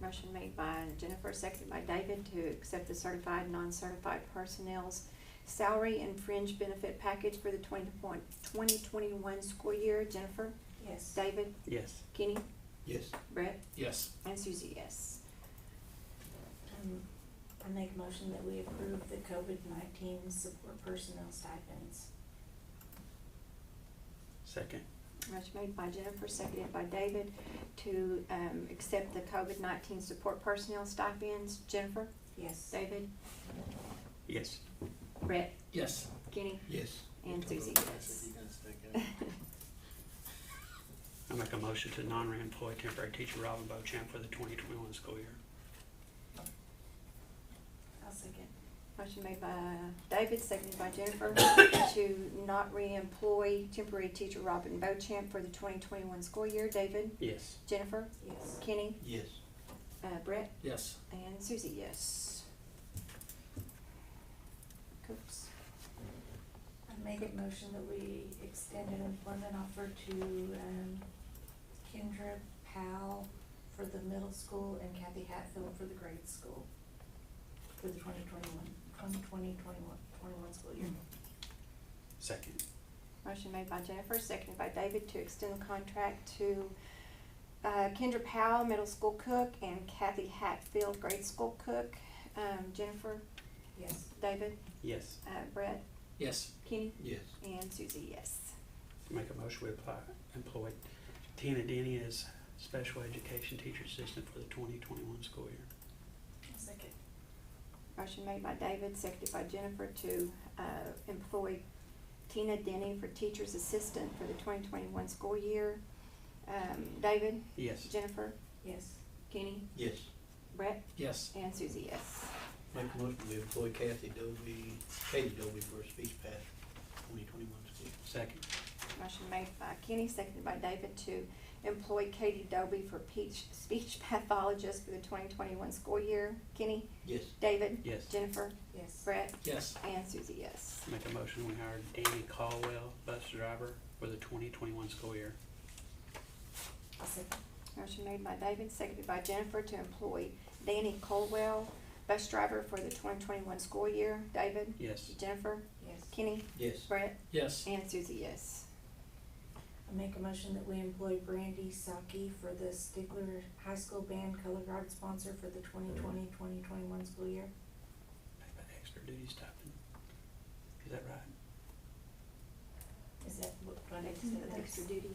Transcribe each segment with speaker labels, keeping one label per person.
Speaker 1: motion made by Jennifer, seconded by David to accept the certified, non-certified personnel's salary and fringe benefit package for the twenty point, twenty twenty-one school year. Jennifer,
Speaker 2: Yes.
Speaker 1: David,
Speaker 3: Yes.
Speaker 1: Kenny,
Speaker 4: Yes.
Speaker 1: Brett,
Speaker 5: Yes.
Speaker 1: and Susie, yes.
Speaker 2: Um, I make a motion that we approve the COVID nineteen support personnel stipends.
Speaker 3: Second.
Speaker 1: Motion made by Jennifer, seconded by David to, um, accept the COVID nineteen support personnel stipends. Jennifer,
Speaker 2: Yes.
Speaker 1: David,
Speaker 3: Yes.
Speaker 1: Brett,
Speaker 5: Yes.
Speaker 1: Kenny,
Speaker 4: Yes.
Speaker 1: and Susie, yes.
Speaker 3: I make a motion to non-reemploy temporary teacher Robin Bochamp for the twenty twenty-one school year.
Speaker 2: I'll second.
Speaker 1: Motion made by David, seconded by Jennifer, to not reemploy temporary teacher Robin Bochamp for the twenty twenty-one school year. David,
Speaker 3: Yes.
Speaker 1: Jennifer,
Speaker 2: Yes.
Speaker 1: Kenny,
Speaker 4: Yes.
Speaker 1: uh, Brett,
Speaker 5: Yes.
Speaker 1: and Susie, yes. Cooks,
Speaker 2: I make a motion that we extend an employment offer to, um, Kendra Powell for the middle school and Kathy Hatfield for the grade school for the twenty twenty-one, twenty twenty, twenty-one, twenty-one school year.
Speaker 3: Second.
Speaker 1: motion made by Jennifer, seconded by David, to extend the contract to, uh, Kendra Powell, middle school cook, and Kathy Hatfield, grade school cook. Um, Jennifer,
Speaker 2: Yes.
Speaker 1: David,
Speaker 3: Yes.
Speaker 1: uh, Brett,
Speaker 5: Yes.
Speaker 1: Kenny,
Speaker 4: Yes.
Speaker 1: and Susie, yes.
Speaker 3: Make a motion we apply, employ Tina Denny as special education teacher assistant for the twenty twenty-one school year.
Speaker 2: I'll second.
Speaker 1: Motion made by David, seconded by Jennifer to uh, employ Tina Denny for teacher's assistant for the twenty twenty-one school year. Um, David,
Speaker 3: Yes.
Speaker 1: Jennifer,
Speaker 2: Yes.
Speaker 1: Kenny,
Speaker 4: Yes.
Speaker 1: Brett,
Speaker 5: Yes.
Speaker 1: and Susie, yes.
Speaker 4: Make a motion we employ Kathy Dovey, Katie Dovey for a speech pass twenty twenty-one school.
Speaker 3: Second.
Speaker 1: Motion made by Kenny, seconded by David to employ Katie Doby for peach, speech pathologist for the twenty twenty-one school year. Kenny,
Speaker 4: Yes.
Speaker 1: David,
Speaker 3: Yes.
Speaker 1: Jennifer,
Speaker 2: Yes.
Speaker 1: Brett,
Speaker 5: Yes.
Speaker 1: and Susie, yes.
Speaker 3: Make a motion we hire Danny Caldwell, bus driver for the twenty twenty-one school year.
Speaker 2: I'll second.
Speaker 1: Motion made by David, seconded by Jennifer to employ Danny Colwell, bus driver for the twenty twenty-one school year. David,
Speaker 3: Yes.
Speaker 1: Jennifer,
Speaker 2: Yes.
Speaker 1: Kenny,
Speaker 4: Yes.
Speaker 1: Brett,
Speaker 5: Yes.
Speaker 1: and Susie, yes.
Speaker 2: I make a motion that we employ Brandy Saki for the Stigler High School Band Color Guard sponsor for the 2020-2021 school year.
Speaker 3: Pay by Extra duty stipend. Is that right?
Speaker 2: Is that what, what I
Speaker 1: Extra extra duty,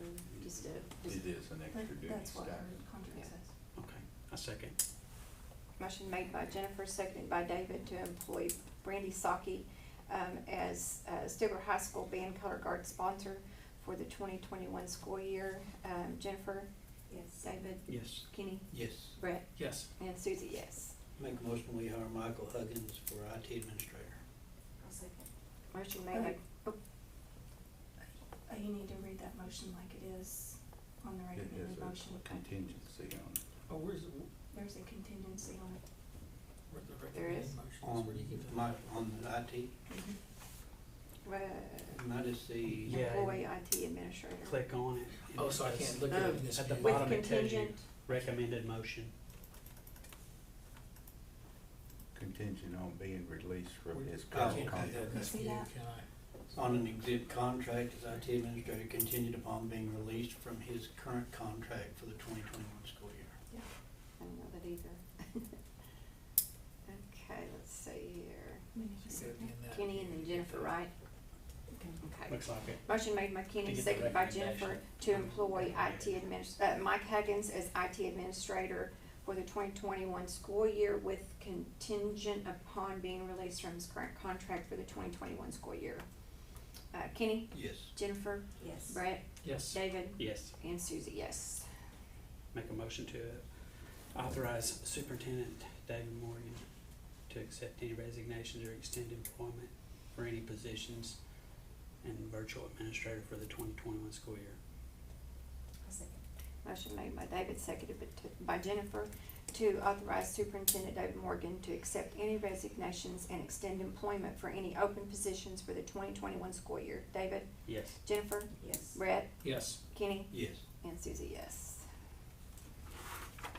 Speaker 1: or just a, just,
Speaker 6: It is an extra duty
Speaker 2: That's what our
Speaker 6: stipend.
Speaker 1: Yeah.
Speaker 2: contract says.
Speaker 3: Okay. A second.
Speaker 1: motion made by Jennifer, seconded by David to employ Brandy Saki, um, as, uh, Stigler High School Band Color Guard sponsor for the twenty twenty-one school year. Um, Jennifer,
Speaker 2: Yes.
Speaker 1: David,
Speaker 3: Yes.
Speaker 1: Kenny,
Speaker 4: Yes.
Speaker 1: Brett,
Speaker 5: Yes.
Speaker 1: and Susie, yes.
Speaker 4: Make a motion we hire Michael Huggins for IT administrator.
Speaker 2: I'll second.
Speaker 1: Motion made by, oh,
Speaker 7: Uh, You need to read that motion like it is on the
Speaker 6: It is
Speaker 7: recommended motion.
Speaker 6: a contingency on
Speaker 5: Oh, where's, the-
Speaker 7: There's a contingency on it.
Speaker 5: where's the
Speaker 1: There
Speaker 5: recommended
Speaker 1: is.
Speaker 5: motions?
Speaker 4: On,
Speaker 5: Where do you get
Speaker 4: Um, my,
Speaker 5: that?
Speaker 4: on IT,
Speaker 1: uh,
Speaker 4: might as the,
Speaker 3: Yeah.
Speaker 1: Employee IT administrator.
Speaker 3: Click on it.
Speaker 5: Oh, so I can't look at it in this.
Speaker 3: At the
Speaker 5: view.
Speaker 1: With
Speaker 3: bottom it tells you
Speaker 1: contingent,
Speaker 3: recommended motion.
Speaker 6: contingent on being released from his
Speaker 4: Oh,
Speaker 5: I
Speaker 6: current
Speaker 5: can't do that
Speaker 6: contract.
Speaker 5: in this
Speaker 7: See
Speaker 5: view,
Speaker 7: that?
Speaker 5: can I?
Speaker 4: on an exempt contract as IT administrator contingent upon being released from his current contract for the twenty twenty-one school year.
Speaker 1: I don't know that either. Okay, let's see here.
Speaker 7: We need to
Speaker 5: So
Speaker 7: see
Speaker 5: it'd be
Speaker 7: that.
Speaker 5: in that
Speaker 1: Kenny and
Speaker 5: view.
Speaker 1: then Jennifer, right? Okay.
Speaker 3: Looks like it.
Speaker 1: Motion made by
Speaker 3: To
Speaker 1: Kenny,
Speaker 3: get the
Speaker 1: seconded by Jennifer
Speaker 3: recommendation.
Speaker 1: to employ IT adminis, uh, Mike Huggins as IT administrator for the twenty twenty-one school year with contingent upon being released from his current contract for the twenty twenty-one school year. Uh, Kenny,
Speaker 4: Yes.
Speaker 1: Jennifer,
Speaker 2: Yes.
Speaker 1: Brett,
Speaker 5: Yes.
Speaker 1: David,
Speaker 3: Yes.
Speaker 1: and Susie, yes.
Speaker 3: Make a motion to authorize Superintendent David Morgan to accept any resignations or extend employment for any positions and virtual administrator for the twenty twenty-one school year.
Speaker 2: I'll second.
Speaker 1: Motion made by David, seconded by t- by Jennifer, to authorize Superintendent David Morgan to accept any resignations and extend employment for any open positions for the twenty twenty-one school year. David,
Speaker 3: Yes.
Speaker 1: Jennifer,
Speaker 2: Yes.
Speaker 1: Brett,
Speaker 5: Yes.
Speaker 1: Kenny,
Speaker 4: Yes.
Speaker 1: and Susie, yes.